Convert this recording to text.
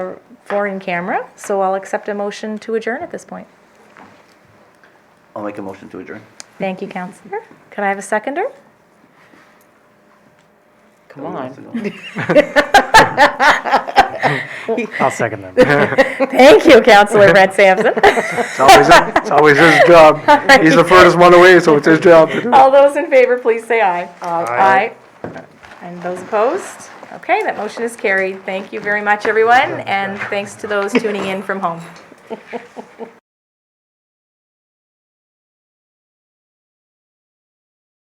for in camera, so I'll accept a motion to adjourn at this point. I'll make a motion to adjourn. Thank you, Counselor. Could I have a seconder? Come on. I'll second them. Thank you, Counselor Brett Sampson. It's always, it's always his job. He's the furthest one away, so it's his job to do it. All those in favor, please say aye. Aye. And those opposed? Okay, that motion is carried. Thank you very much, everyone, and thanks to those tuning in from home.